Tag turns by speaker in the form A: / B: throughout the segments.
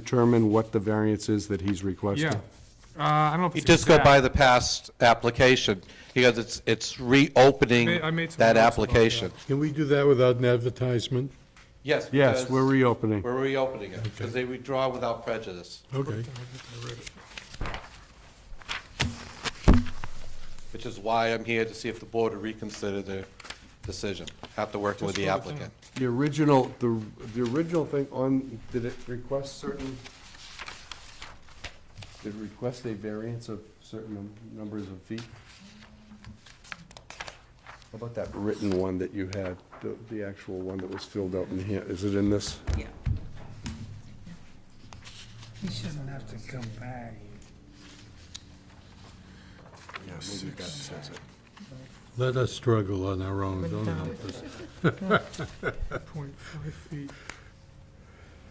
A: determine what the variance is that he's requesting?
B: Yeah. Uh, I don't know if
C: You
B: it's
C: just go
B: exact.
C: by the past application, because it's, it's reopening
B: Ma- I made some
C: that
B: notes about
C: application.
D: Can we do that without an advertisement?
C: Yes.
A: Yes,
C: because
A: we're reopening.
C: We're reopening it, because they withdraw without prejudice,
D: Okay.
C: which is why I'm here to see if the board will reconsider their decision after working with the applicant.
A: The original, the, the original thing on, did it request certain, did it request a variance of certain numbers of feet? How about that written one that you had, the, the actual one that was filled out in here, is it in this?
E: Yeah.
F: He shouldn't have to come back.
D: Let us struggle on our own, don't help us.
B: Point five feet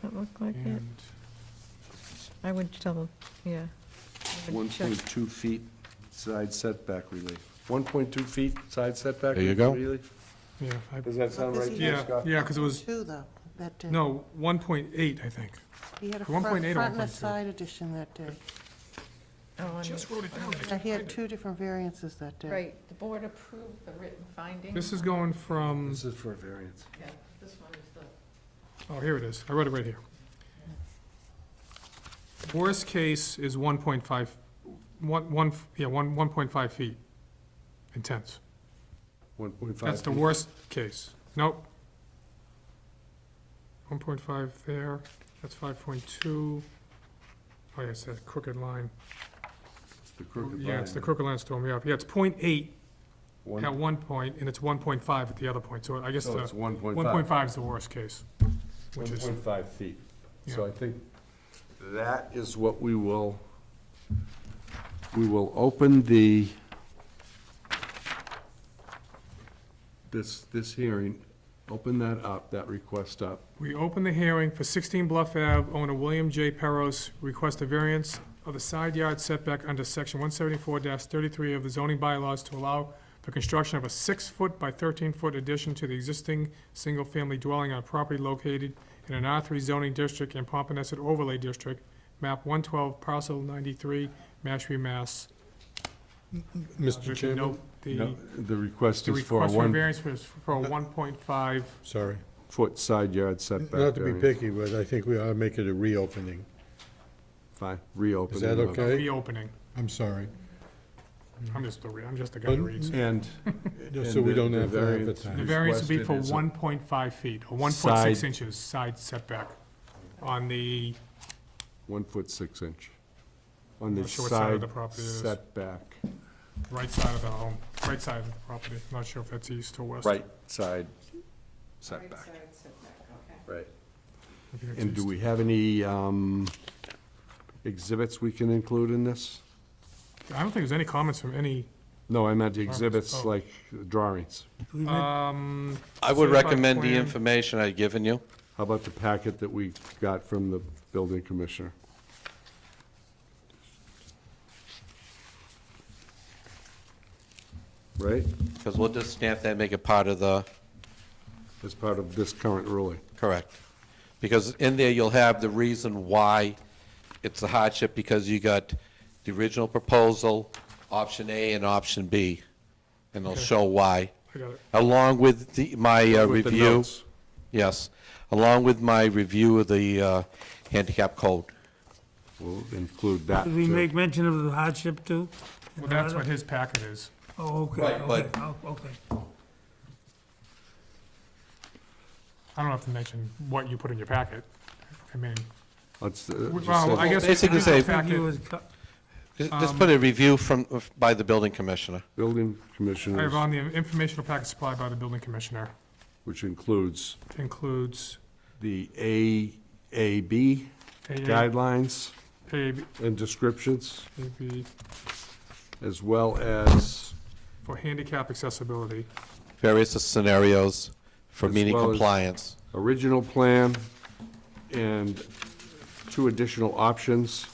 E: That look like it?
B: and,
E: I would double, yeah. I would
A: One
E: check.
A: point two feet side setback relief. One point two feet side setback relief?
C: There you go.
B: yeah, I-
A: Does that sound right to you,
B: yeah,
A: Scott?
B: yeah, because it was,
G: Two, though, that day.
B: no, one point eight, I think.
G: He had
B: 1.8
G: a front
B: or
G: front and a
B: 1.2?
G: side edition that day.
E: Oh, I
B: Just
E: mean-
B: wrote it down. I
G: Now,
B: just
G: he had
B: read it.
G: two different variances that day.
E: Right, the board approved the written findings.
B: This is going from,
A: This is for a variance.
E: Yeah, this one is the.
B: oh, here it is. I wrote it right here. Worst case is one point five, one, one, yeah, one, one point five feet intense.
A: One point five.
B: That's the worst case. Nope. One point five there, that's five point two. Oh, yeah, it's that crooked line.
A: The crooked
B: Yeah, it's the
A: line.
B: crooked line that's throwing me off. Yeah, it's point eight
A: One-
B: at one point, and it's one point five at the other point, so I guess
A: So it's
B: the,
A: one point
B: one
A: five.
B: point five is the worst case, which is,
A: 1.5 feet. So I
B: Yeah.
A: think that is what we will, we will open the, this, this hearing, open that up, that request up.
B: we open the hearing for sixteen Bluff Ave, owner William J. Perros, request a variance of the side yard setback under section one seventy-four thirty-three of the zoning bylaws to allow for construction of a six-foot by thirteen-foot addition to the existing single-family dwelling on property located in an R three zoning district and Pompanesett overlay district, map one twelve, parcel ninety-three, Mashpee, Mass.
D: Mr.
B: Note
D: Chairman?
B: The
A: The request
B: The
A: is for a
B: request for
A: one-foot
B: variance was for a 1.5,
D: Sorry.
A: side yard setback.
D: Not to be
A: variance.
D: picky, but I think we ought to make it a reopening.
A: Fine, reopen.
D: Is that
A: it up.
D: okay?
B: reopening.
D: I'm sorry.
B: I'm just, a re- I'm just a guy who reads.
A: And.
D: Just
A: and
D: so we
A: the-
D: don't
A: the
D: have to
A: variance
D: advertise.
B: The variance would be for
A: requested is a-
B: 1.5 feet, or
A: Side.
B: 1.6 inches side setback on the,
A: One foot six inch on the
B: Not sure what side
A: side
B: of the property it is.
A: setback.
B: right side of the home, right side of the property. Not sure if that's east or west.
A: Right side setback. Right.
B: I think it's
A: And do
B: east.
A: we have any um, exhibits we can include in this?
B: I don't think there's any comments from any,
A: No, I meant exhibits
B: Oh.
A: like drawings.
B: um,
C: I would
B: Certified
C: recommend the
B: plan.
C: information I've given you.
A: How about the packet that we got from the building commissioner? Right,
C: Because we'll just stamp that, and make it part of the,
A: as part of this current ruling.
C: correct. Because in there, you'll have the reason why it's a hardship, because you got the original proposal, option A and option B, and they'll show why,
B: I got it.
C: along with the, my uh,
A: With the
C: review.
A: notes.
C: Yes, along with my review of the uh, handicap code.
A: We'll include that.
F: Did we
A: too.
F: make mention of the hardship too?
B: Well, that's what his packet is.
F: Oh, okay,
C: Right,
F: okay,
C: but-
F: oh, okay.
B: I don't have to mention what you put in your packet. I mean,
A: Let's, uh, just
B: well, I
A: have
B: guess.
C: Basically
B: it's in the
C: say-
F: Thank
B: packet.
F: you, it's co-
C: Just
A: Um,
C: just put a review from, uh, by the building commissioner.
A: building
B: I have
A: commissioner,
B: on the informational packet supplied by the building commissioner,
A: which includes
B: includes
A: the AAB
B: AA,
A: guidelines
B: AB,
A: and descriptions,
B: AB
A: as well as
B: for handicap accessibility.
C: various scenarios for
A: As
C: meeting
A: well as-
C: compliance.
A: original plan and two additional options.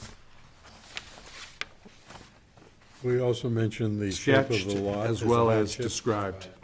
D: We also mentioned the shape of
A: sketched
D: the lot.
A: as
D: a
A: well as
D: hardship.
A: described.
B: Um,